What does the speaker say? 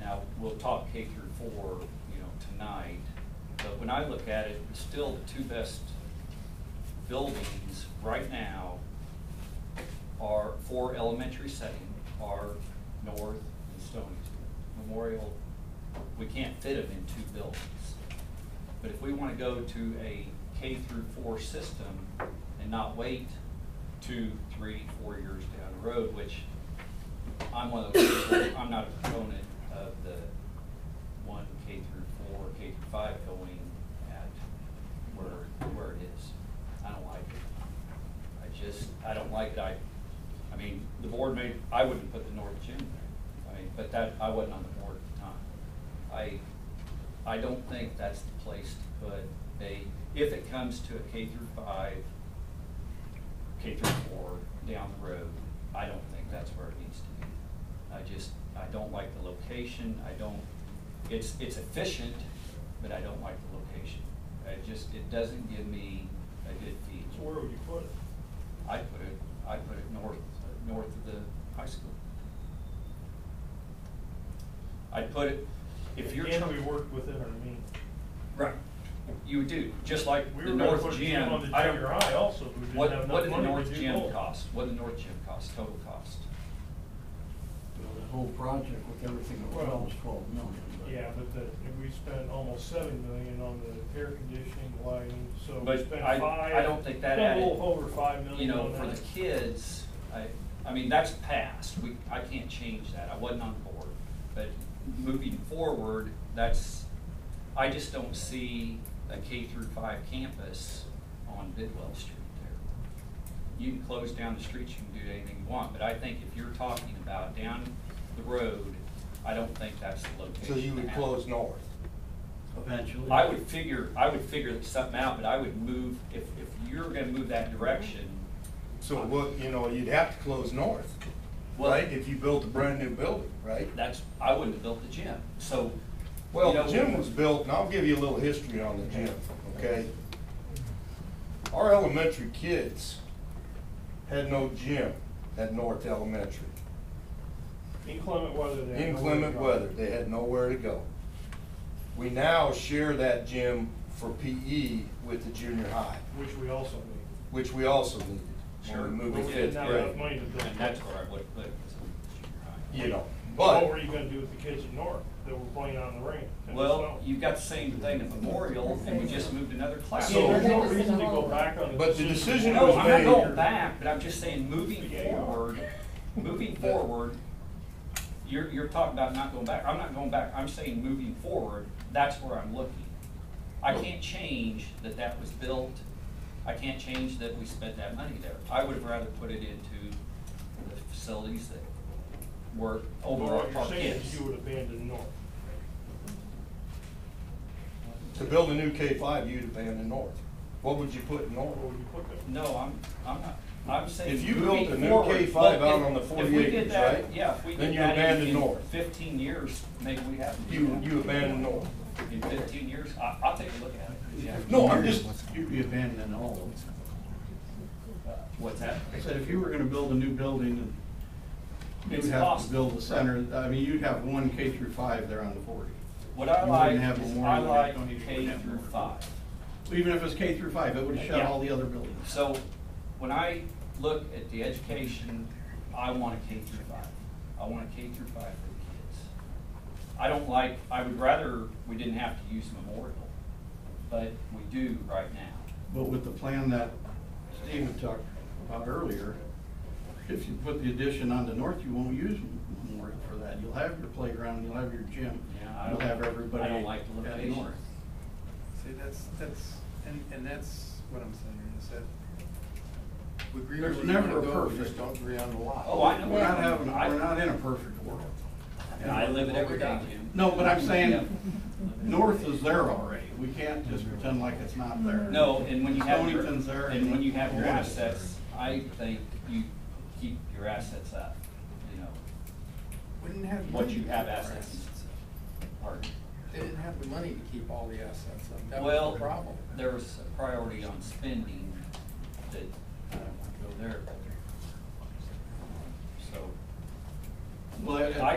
now, we'll talk K through four, you know, tonight, but when I look at it, it's still the two best buildings right now are, for elementary setting, are North and Stony's. Memorial, we can't fit them in two buildings. But if we wanna go to a K through four system and not wait two, three, four years down the road, which I'm one of those people, I'm not a proponent of the one K through four, K through five going at where, where it is. I don't like it. I just, I don't like it. I, I mean, the board made, I wouldn't put the North Gym there. I mean, but that, I wasn't on the board at the time. I, I don't think that's the place to put a, if it comes to a K through five, K through four down the road, I don't think that's where it needs to be. I just, I don't like the location, I don't, it's, it's efficient, but I don't like the location. It just, it doesn't give me a good So feel. where would you put it? I put it, I put it north, north of the high school. I'd put it, if you're. And tr- we worked within our means. Right, you would do, just like We the were gonna north put a gym gym. on the I don't- junior high also, but we didn't have What, what enough did the money north to do gym both. cost? What did the north gym cost, total cost? Well, the whole project with everything around was twelve million. but- Yeah, but the, and we spent almost seven million on the air conditioning, lighting, so we But spent I- five. I don't think that spent A added- little over five You million know, on that. for the kids, I, I mean, that's past, we, I can't change that, I wasn't on board. But moving forward, that's, I just don't see a K through five campus on Bidwell Street there. You can close down the streets, you can do anything you want, but I think if you're talking about down the road, I don't think that's the location. So you to would have it. close north? Eventually. I would figure, I would figure something out, but I would move, if, if you're gonna move that direction, So what, you know, you'd have to close north, Well- right? If you built a brand new building, right? that's, I wouldn't have built the gym, so. Well, you the know, gym was built, and I'll give you a little history on the gym, okay? Our elementary kids had no gym at North Elementary. Inclement weather. they had no way Inclement to weather, drive. they had nowhere to go. We now share that gym for PE with the junior high, Which we also need. which we also needed. when Sure. we're But Moving we fifth didn't have enough grade, money to build. And that's where I would put it, was on junior high. you know, but. What were you gonna do with the kids at North that were playing out in the rain? in the Well, snow? you've got the same thing at Memorial, and we just moved another class. See, there's no So- reason to go back on the. But the decision No, was I'm not made- going back, but I'm just saying, moving Yeah, you are. forward, moving forward, you're, you're talking about not going back, I'm not going back, I'm saying moving forward, that's where I'm looking. I can't change that that was built, I can't change that we spent that money there. I would have rather put it into the facilities that were But overall what for you're our saying kids. is you would abandon North. To build a new K five, you'd abandon North. What would you put in What North? would you put there? No, I'm, I'm not, I'm saying. If you moving built a new forward, K five well, out if- on the if 40 we did acres, that- right? Yeah, if we Then did you that in- abandon in North. fifteen years, maybe we haven't. You, you abandon North. In fifteen years, I, I'll take a look at it, yeah. No, I'm just, You'd be abandoning all of them. What's that? I said, if you were gonna build a new building, you'd It's have to possible. build a center, I mean, you'd have one K through five there on the forty. What I you wouldn't like have is I Memorial, you don't need like to K have through Memorial. five. Even if it's K through five, it would shut Uh, Yeah. all the other buildings. So when I look at the education, I want a K through five. I want a K through five for the kids. I don't like, I would rather we didn't have to use Memorial, but we do right now. But with the plan that Steve had talked about earlier, if you put the addition on the north, you won't use Memorial for that. You'll have your playground, you'll have your gym, Yeah, I you'll don't- have everybody. I don't like the at location. north. See, that's, that's, and, and that's what I'm saying, is that we agree There's where you wanna never a go, we perfect. just don't agree on the lot. Oh, I know. We're not having, I- we're not in a perfect world. And I live it every day, Jim. No, but I'm saying, Yep. north is there already. We can't just pretend like it's not there. No, and when you have your, Stonington's there. and when you have your Yeah. assets, I think you keep your assets up, you know, Wouldn't have. once money you to have keep our assets. Pardon? They didn't have the money to keep all the assets up, that was Well, the problem. there was a priority on spending that, uh, I don't wanna go there, but. So, Well, I